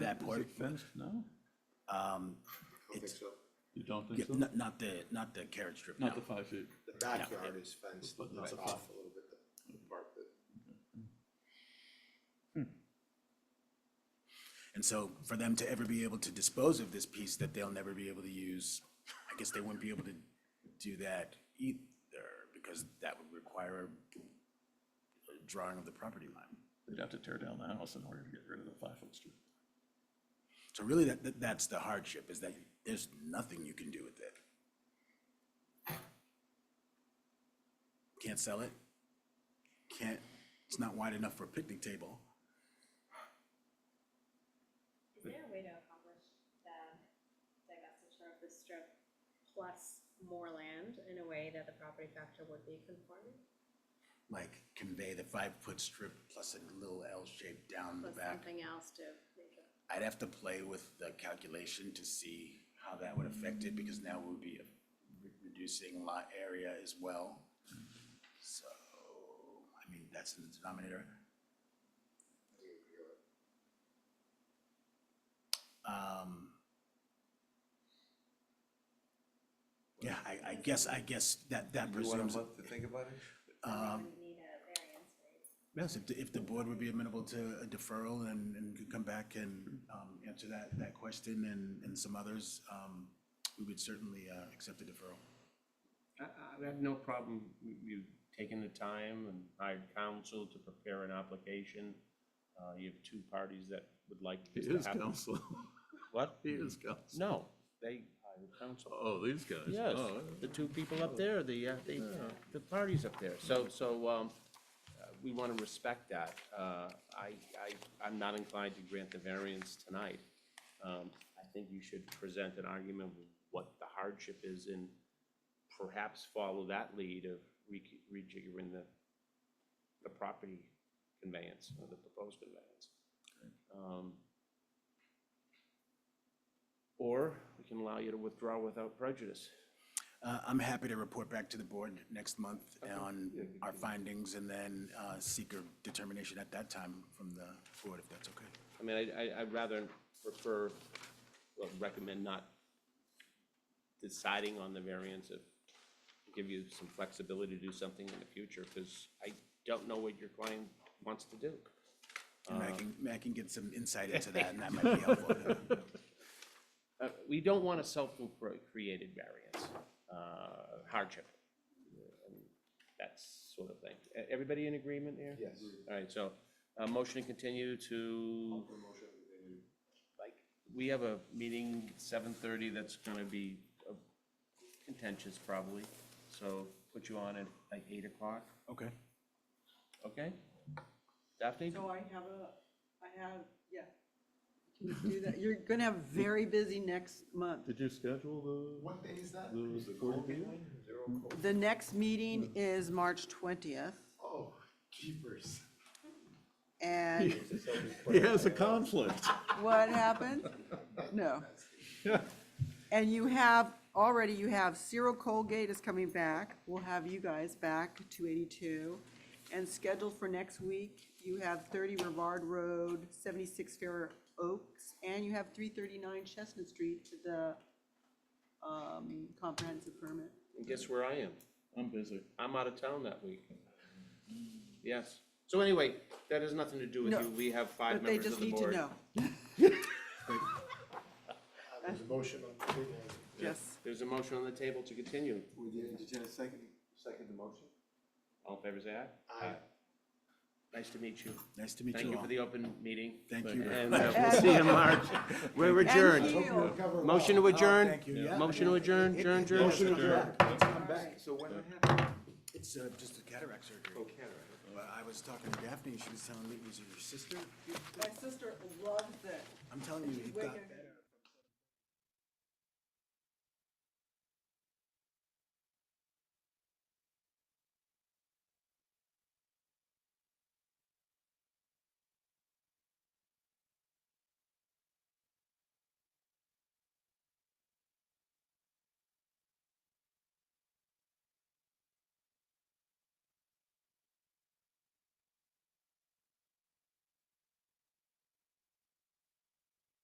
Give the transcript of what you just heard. that Is part. Um, it fenced now? I don't think so. You don't Yeah, think so? Not, not the, not the carriage strip, no. Not the five feet. The backyard is fenced, But not it's the off a little bit, the part that. And so for them to ever be able to dispose of this piece that they'll never be able to use, I guess they wouldn't be able to do that either because that would require a- a drawing of the property line. They'd have to tear down the house in order to get rid of the five-foot street. So really, that, that- that's the hardship, is that there's nothing you can do with it. Can't sell it. Can't, it's not wide enough for a picnic table. Is there a way to accomplish that divestiture of this strip plus more land in a way that the property factor would be conforming? Like convey the five-foot strip plus a little L shape down the Plus back. something else to make it, I'd have to play with the calculation to see how that would affect it, because now we'll be re- reducing lot area as well. So, I mean, that's in the denominator. Um. Yeah, I, I guess, I guess that, that You want a presumes, um, month to think about it? we would need a variance, right? yes, if, the- if the board would be amenable to a deferral and, and could come back and, um, answer that, that question and, and some others, um, we would certainly, uh, accept the deferral. I, I have no problem you- you taking the time and hired counsel to prepare an application. Uh, you have two parties that would like He this to is happen. council. What? He is council. No, they hired counsel. Oh, these guys. Yes, Oh, the two people up there, the, uh, the, the parties up there. So, so, um, uh, we want to respect that. Uh, I, I, I'm not inclined to grant the variance tonight. Um, I think you should present an argument of what the hardship is and perhaps follow that lead of re- rejiggering the, the property conveyance or the proposed conveyance. Um, Or we can allow you to withdraw without prejudice. Uh, I'm happy to report back to the board next month on our findings and then uh, seek a determination at that time from the board, if that's okay. I mean, I, I, I'd rather prefer, well, recommend not deciding on the variance of, give you some flexibility to do something in the future, because I don't know what your client wants to do. And I can, I can get some insight into that, and that might be helpful. Uh, we don't want a self-created variance, uh, hardship. That sort of thing. E- Everybody in agreement here? Yes. All right, so, uh, motion to continue to Motion to continue. like, we have a meeting seven thirty that's gonna be uh, contentious probably, so put you on at like eight o'clock, Okay. okay? Daphne? So I have a, I have, yeah. Can you do that? You're gonna have very busy next month. Did you schedule the, What day is that? the Is it forty cold? B? Zero cold. The next meeting is March twentieth, Oh, keepers. and He has a conflict. what happened? No. And you have, already you have Cyril Colgate is coming back. We'll have you guys back, two eighty-two. And scheduled for next week, you have thirty Rivard Road, seventy-six Fair Oaks, and you have three thirty-nine Chestnut Street to the, um, comprehensive permit. And guess where I am? I'm busy. I'm out of town that week. Yes. So anyway, that has nothing to do with No, you. We have five But they members of just the need to board. know, Uh, There's a motion on the table. yes. There's a motion on the table to continue. Would you entertain a second, second the motion? All in favor, say aye. Aye. Nice to meet you. Nice to meet Thank you you all. for the open meeting. Thank you. And uh, we'll see you in March. We're And adjourned. Keel. Cover all. Motion to adjourn? thank you. Yeah. Motion to adjourn, adjourn, adjourn? Motion to adjourn. Let's come back. So when that happens, It's uh, just a cataract surgery. okay, all right. Well, I was talking to Daphne, and she was telling me, was it your sister? My sister loves it. I'm telling you, you've got Wicked.